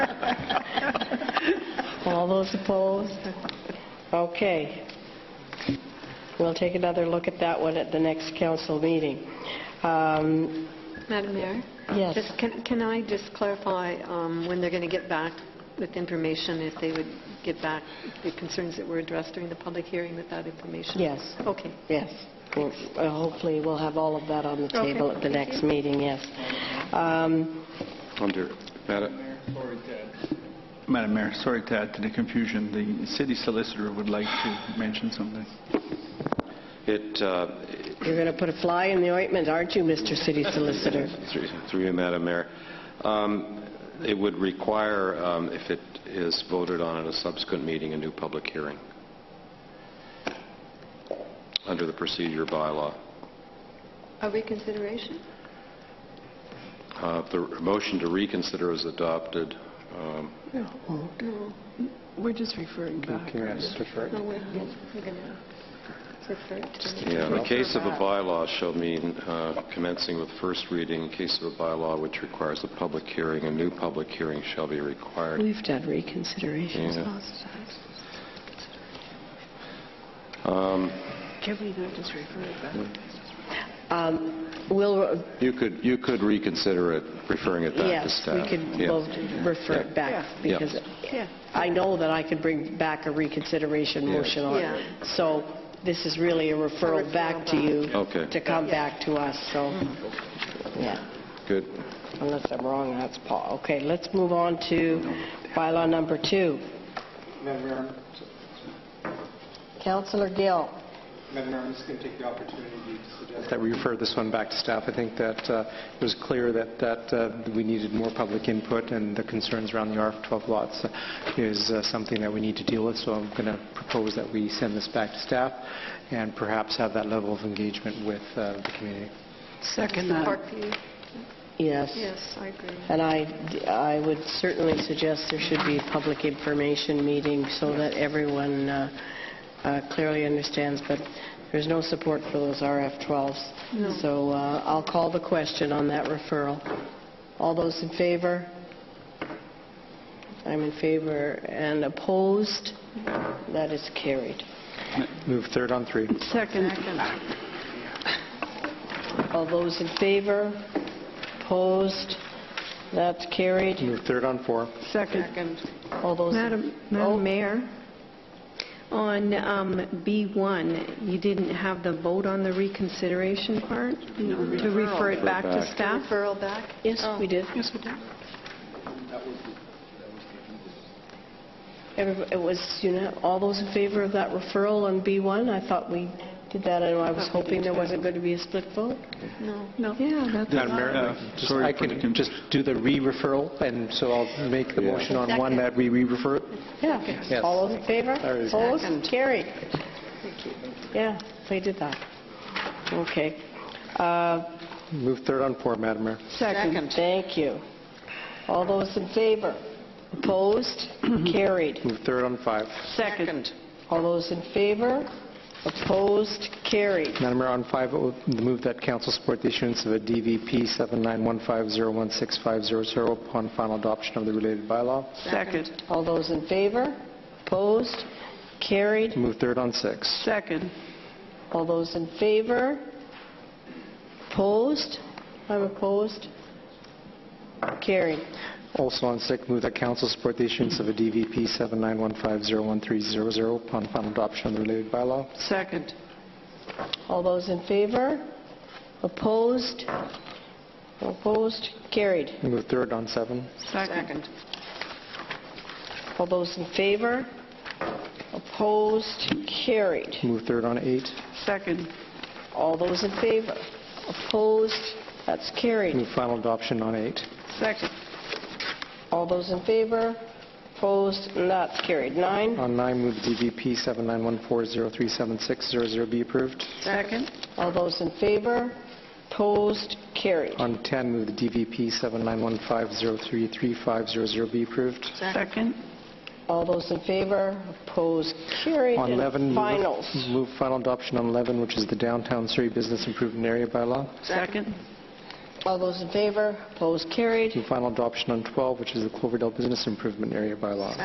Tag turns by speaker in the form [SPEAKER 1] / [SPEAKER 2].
[SPEAKER 1] All those opposed? Okay. We'll take another look at that one at the next council meeting. Um,
[SPEAKER 2] Madam Mayor?
[SPEAKER 1] Yes.
[SPEAKER 2] Just, can, can I just clarify um, when they're going to get back with information, if they would get back the concerns that were addressed during the public hearing with that information?
[SPEAKER 1] Yes.
[SPEAKER 2] Okay.
[SPEAKER 1] Yes. Well, uh, Hopefully, we'll have all of that on the
[SPEAKER 2] Okay,
[SPEAKER 1] table at the
[SPEAKER 2] thank
[SPEAKER 1] next
[SPEAKER 2] you.
[SPEAKER 1] meeting, yes. Um,
[SPEAKER 3] Under, Madam,
[SPEAKER 4] Madam Mayor, sorry to add to the confusion. The city solicitor would like to mention something.
[SPEAKER 3] it, uh,
[SPEAKER 1] You're going to put a fly in the ointment, aren't you, Mr. City Solicitor?
[SPEAKER 3] through through you, Madam Mayor, um, it would require, um, if it is voted on at a subsequent meeting, a new public hearing under the procedure bylaw.
[SPEAKER 2] A reconsideration?
[SPEAKER 3] Uh, If the motion to reconsider is adopted, um,
[SPEAKER 2] No,
[SPEAKER 5] We're just referring back.
[SPEAKER 2] no, we're, we're going to refer it to the...
[SPEAKER 3] yeah, in the case of a bylaw shall mean uh, commencing with first reading, in case of a bylaw which requires a public hearing, a new public hearing shall be required.
[SPEAKER 5] We've done reconsiderations
[SPEAKER 3] Yeah.
[SPEAKER 5] lots of times.
[SPEAKER 3] Um,
[SPEAKER 5] Can we not just refer it back?
[SPEAKER 1] Um, We'll,
[SPEAKER 3] You could, you could reconsider it, referring it back to
[SPEAKER 1] yes, we
[SPEAKER 3] staff.
[SPEAKER 1] could
[SPEAKER 3] Yeah.
[SPEAKER 1] we'll refer it back,
[SPEAKER 3] Yeah.
[SPEAKER 1] because
[SPEAKER 5] Yeah.
[SPEAKER 1] I know that I could bring back a reconsideration
[SPEAKER 3] Yeah.
[SPEAKER 1] motion on
[SPEAKER 2] Yeah.
[SPEAKER 1] it. So this is really a referral
[SPEAKER 2] referral
[SPEAKER 1] back to you.
[SPEAKER 3] Okay.
[SPEAKER 1] To come back to us, so, yeah.
[SPEAKER 3] Good.
[SPEAKER 1] Unless I'm wrong, that's Paul. Okay, let's move on to bylaw number two.
[SPEAKER 6] Madam Mayor,
[SPEAKER 1] Councillor Gill.
[SPEAKER 6] Madam Mayor, I'm just going to take the opportunity to suggest that we refer this one back to staff. I think that uh, it was clear that that uh, we needed more public input, and the concerns around the RF-12 lots is uh, something that we need to deal with, so I'm going to propose that we send this back to staff and perhaps have that level of engagement with uh, the community.
[SPEAKER 5] Second
[SPEAKER 2] Park
[SPEAKER 5] that.
[SPEAKER 2] View,
[SPEAKER 1] Yes.
[SPEAKER 2] yes, I agree.
[SPEAKER 1] And I, I would certainly suggest there should be a public information meeting so that everyone uh, uh, clearly understands, but there's no support for those RF-12s. So uh, I'll call the question on that referral. All those in favor? I'm in favor. And opposed? That is carried.
[SPEAKER 6] Move third on three.
[SPEAKER 5] Second.
[SPEAKER 1] All those in favor? Opposed? That's carried.
[SPEAKER 6] Move third on four.
[SPEAKER 5] Second.
[SPEAKER 1] All those...
[SPEAKER 7] Madam
[SPEAKER 1] Oh,
[SPEAKER 7] Madam Mayor, on um, B1, you didn't have the vote on the reconsideration part? To refer it back to staff?
[SPEAKER 2] Referral back?
[SPEAKER 1] Yes, we did.
[SPEAKER 7] Yes, we did.
[SPEAKER 1] Everyb- It was, you know, all those in favor of that referral on B1? I thought we did that, and I was hoping there wasn't going to be a split vote.
[SPEAKER 2] No.
[SPEAKER 7] Yeah, that's...
[SPEAKER 6] Madam Mayor,
[SPEAKER 4] Uh,
[SPEAKER 6] just-
[SPEAKER 4] sorry
[SPEAKER 6] I
[SPEAKER 4] for the con-
[SPEAKER 6] can just do the re-referral, and so I'll make the
[SPEAKER 3] Yeah.
[SPEAKER 6] motion on one that we re-refer it.
[SPEAKER 1] Yeah.
[SPEAKER 6] Yes.
[SPEAKER 1] All those in favor?
[SPEAKER 6] There is-
[SPEAKER 1] Opposed? Carried. Yeah, they did that. Okay. Uh,
[SPEAKER 6] Move third on four, Madam Mayor.
[SPEAKER 1] Second. Thank you. All those in favor? Opposed? Carried.
[SPEAKER 6] Move third on five.
[SPEAKER 1] Second. All those in favor? Opposed? Carried.
[SPEAKER 6] Madam Mayor, on five, oh, the move that council support the issuance of a DVP 7915016500 upon final adoption of the related bylaw.
[SPEAKER 5] Second.
[SPEAKER 1] All those in favor? Opposed? Carried.
[SPEAKER 6] Move third on six.
[SPEAKER 5] Second.
[SPEAKER 1] All those in favor? Opposed? I'm opposed. Carried.
[SPEAKER 6] Also on six, move that council support the issuance of a DVP 7915013000 upon final adoption of the related bylaw.
[SPEAKER 5] Second.
[SPEAKER 1] All those in favor? Opposed? Opposed? Carried.
[SPEAKER 6] Move third on seven.
[SPEAKER 5] Second.
[SPEAKER 1] All those in favor? Opposed? Carried.
[SPEAKER 6] Move third on eight.
[SPEAKER 5] Second.
[SPEAKER 1] All those in favor? Opposed? That's carried.
[SPEAKER 6] Move final adoption on eight.
[SPEAKER 5] Second.
[SPEAKER 1] All those in favor? Opposed? And that's carried. Nine.
[SPEAKER 6] On nine, move the DVP 7914037600 be approved.
[SPEAKER 5] Second.
[SPEAKER 1] All those in favor? Opposed? Carried.
[SPEAKER 6] On 10, move the DVP 7915033500 be approved.
[SPEAKER 5] Second.
[SPEAKER 1] All those in favor, opposed, carried.
[SPEAKER 6] On
[SPEAKER 1] And
[SPEAKER 6] 11, move-
[SPEAKER 1] Finals.
[SPEAKER 6] move final adoption on 11, which is the downtown Surrey Business Improvement Area bylaw.
[SPEAKER 5] Second.
[SPEAKER 1] All those in favor, opposed, carried.
[SPEAKER 6] Move final adoption on 12, which is the Cloverdale Business Improvement Area bylaw.